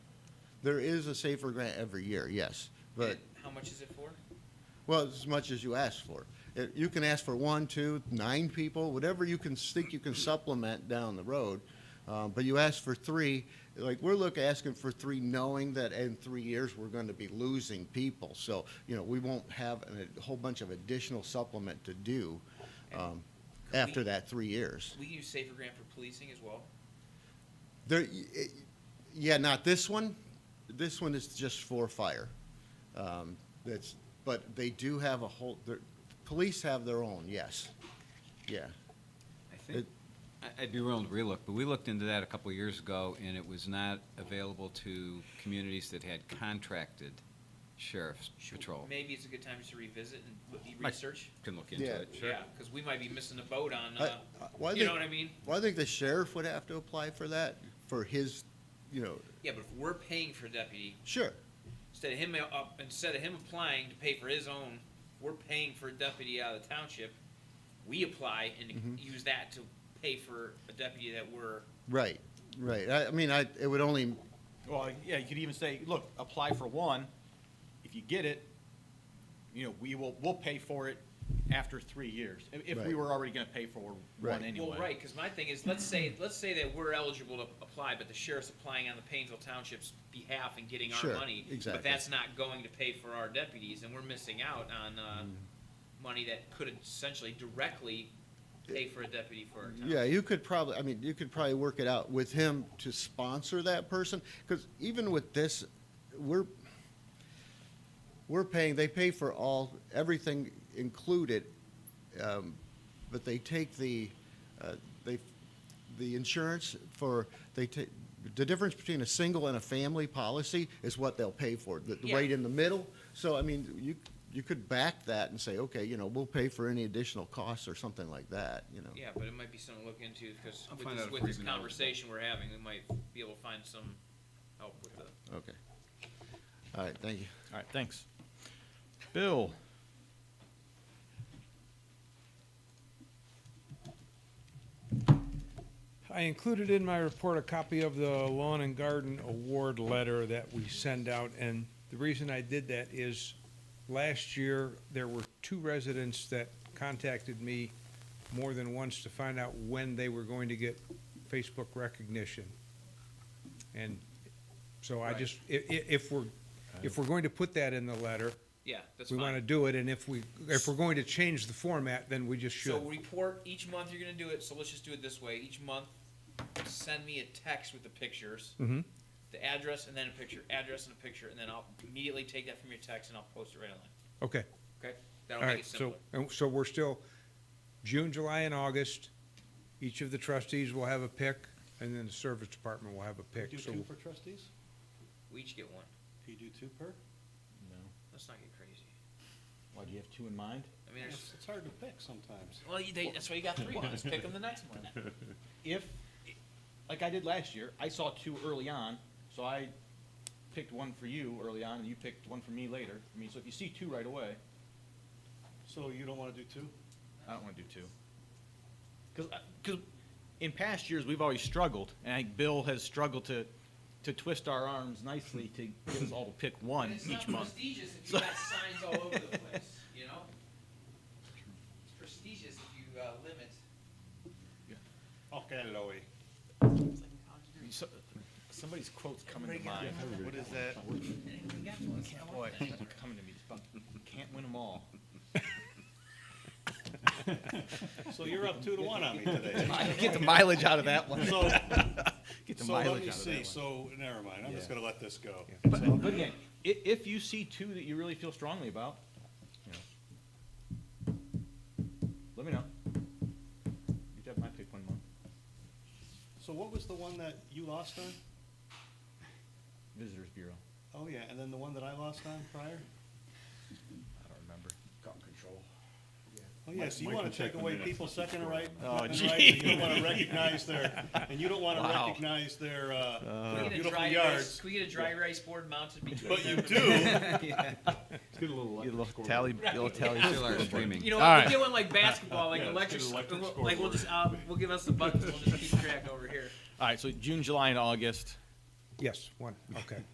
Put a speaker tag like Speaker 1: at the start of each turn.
Speaker 1: There is a safer grant every year, yes, but,
Speaker 2: And How much is it for?
Speaker 1: well, as much as you ask for. It- You can ask for one, two, nine people, whatever you can think you can supplement down the road. Uh, But you ask for three, like, we're looking, asking for three, knowing that in three years, we're going to be losing people. So, you know, we won't have an- a whole bunch of additional supplement to do um,
Speaker 2: Could we-
Speaker 1: after that three years.
Speaker 2: We can use Safer Grant for policing as well.
Speaker 1: There, it- yeah, not this one. This one is just for fire. Um, that's, but they do have a whole, their, police have their own, yes. Yeah.
Speaker 3: I think, I- I'd be willing to relook, but we looked into that a couple of years ago, and it was not available to communities that had contracted sheriff's
Speaker 2: Should-
Speaker 3: patrol.
Speaker 2: Maybe it's a good time just to revisit and w-
Speaker 3: Right.
Speaker 2: research.
Speaker 3: Can look into
Speaker 1: Yeah.
Speaker 3: it.
Speaker 2: Yeah, because we might be missing the boat on,
Speaker 1: I-
Speaker 2: uh,
Speaker 1: I- well, I
Speaker 2: you know
Speaker 1: think-
Speaker 2: what I mean?
Speaker 1: Well, I think the sheriff would have to apply for that, for his, you know,
Speaker 2: Yeah, but if we're paying for a deputy,
Speaker 1: sure.
Speaker 2: instead of him, uh, up- instead of him applying to pay for his own, we're paying for a deputy out of the township. We apply and
Speaker 1: Mhm.
Speaker 2: use that to pay for a deputy that we're,
Speaker 1: Right, right. I, I mean, I, it would only,
Speaker 4: Well, yeah, you could even say, look, apply for one. If you get it, you know, we will, we'll pay for it after three years. If, if we
Speaker 1: Right.
Speaker 4: were already gonna pay for
Speaker 1: Right.
Speaker 4: one anyway.
Speaker 2: well, right, because my thing is, let's say, let's say that we're eligible to apply, but the sheriff's applying on the Painesville Township's behalf and getting our
Speaker 1: Sure,
Speaker 2: money. But
Speaker 1: exactly.
Speaker 2: that's not going to pay for our deputies, and we're missing out on, uh, money that could essentially directly pay for a deputy for our town.
Speaker 1: Yeah, you could probably, I mean, you could probably work it out with him to sponsor that person, because even with this, we're, we're paying, they pay for all, everything included, um, but they take the, uh, they, the insurance for, they take, the difference between a single and a family policy is what they'll pay for, the, the
Speaker 2: Yeah.
Speaker 1: rate in the middle. So, I mean, you, you could back that and say, okay, you know, we'll pay for any additional costs or something like that, you know?
Speaker 2: Yeah, but it might be something to look into, because
Speaker 3: I'll
Speaker 2: with
Speaker 3: find out
Speaker 2: this,
Speaker 3: if
Speaker 2: with
Speaker 3: we're
Speaker 2: this
Speaker 3: even eligible.
Speaker 2: conversation we're having, we might be able to find some help with the.
Speaker 1: Okay. All right, thank you.
Speaker 4: All right, thanks. Bill?
Speaker 5: I included in my report a copy of the Lawn and Garden Award letter that we send out, and the reason I did that is last year, there were two residents that contacted me more than once to find out when they were going to get Facebook recognition. And so I just, i- i- if we're, if we're going to put that in the letter,
Speaker 2: Yeah, that's
Speaker 5: we want to
Speaker 2: fine.
Speaker 5: do it, and if we, if we're going to change the format, then we just
Speaker 2: So
Speaker 5: should.
Speaker 2: report, each month you're gonna do it, so let's just do it this way, each month, send me a text with the pictures,
Speaker 5: Mhm.
Speaker 2: the address and then a picture, address and a picture, and then I'll immediately take that from your text and I'll post it right online,
Speaker 5: Okay.
Speaker 2: okay? That'll
Speaker 5: All
Speaker 2: make
Speaker 5: right,
Speaker 2: it
Speaker 5: so,
Speaker 2: simpler.
Speaker 5: and so we're still, June, July, and August, each of the trustees will have a pick, and then the service department will have a pick,
Speaker 6: Do
Speaker 5: so,
Speaker 6: two per trustees?
Speaker 2: We each get one,
Speaker 6: Do you do two per?
Speaker 7: No.
Speaker 2: let's not get crazy.
Speaker 7: Why, do you have two in mind?
Speaker 2: I mean, there's,
Speaker 6: It's hard to pick sometimes.
Speaker 2: well, you- they, that's why you got three ones, pick them the next one.
Speaker 7: If, like I did last year, I saw two early on, so I picked one for you early on, and you picked one for me later. I mean, so if you see two right away,
Speaker 6: So you don't wanna do two?
Speaker 7: I don't want to do two. uh,
Speaker 4: Because, in past years, we've always struggled, and I think Bill has struggled to, to twist our arms nicely to get us all to pick one
Speaker 2: It's
Speaker 4: each
Speaker 2: not
Speaker 4: month.
Speaker 2: prestigious if you got signs all over the place, you know? It's prestigious if you uh, limit.
Speaker 6: Okay, Loey.
Speaker 2: It's like, oh, how'd you do it?
Speaker 7: So- Somebody's quote's coming to mind.
Speaker 6: What is that?
Speaker 2: Anyone got one? I want
Speaker 7: Boy,
Speaker 2: that.
Speaker 7: they're coming to me. Can't win them all.
Speaker 6: So you're up two to one on me today.
Speaker 7: Get the mileage out of that one.
Speaker 6: So,
Speaker 7: Get the
Speaker 6: so let
Speaker 7: mileage
Speaker 6: me
Speaker 7: out of that
Speaker 6: see,
Speaker 7: one.
Speaker 6: so, never mind, I'm just gonna let this go.
Speaker 7: But, but again, i- if you see two that you really feel strongly about, you know, let me know. You have my pick one month.
Speaker 6: So what was the one that you lost on?
Speaker 7: Visitors Bureau.
Speaker 6: Oh, yeah, and then the one that I lost on prior?
Speaker 7: I don't remember.
Speaker 6: Oh, yeah, so you wanna take away people's second right?
Speaker 4: Oh,
Speaker 6: weapon right, and You don't wanna recognize their, and you don't wanna
Speaker 4: Wow.
Speaker 6: recognize their, uh,
Speaker 2: Can
Speaker 6: their
Speaker 2: we get a
Speaker 6: beautiful
Speaker 2: dry rice,
Speaker 6: yards.
Speaker 2: can we get a dry rice board mounted between?
Speaker 6: But you
Speaker 2: them?
Speaker 6: do,
Speaker 3: tally,
Speaker 2: little tally
Speaker 3: Still are
Speaker 2: You
Speaker 3: streaming.
Speaker 2: know,
Speaker 4: All
Speaker 2: what,
Speaker 4: right.
Speaker 2: we get one like basketball, like
Speaker 6: Yeah, let's
Speaker 2: electric,
Speaker 6: get an electric
Speaker 2: we'll- like we'll just, uh, we'll give us the buckets, we'll just keep track over here.
Speaker 4: All right, so June, July, and August.
Speaker 5: yes, one, okay.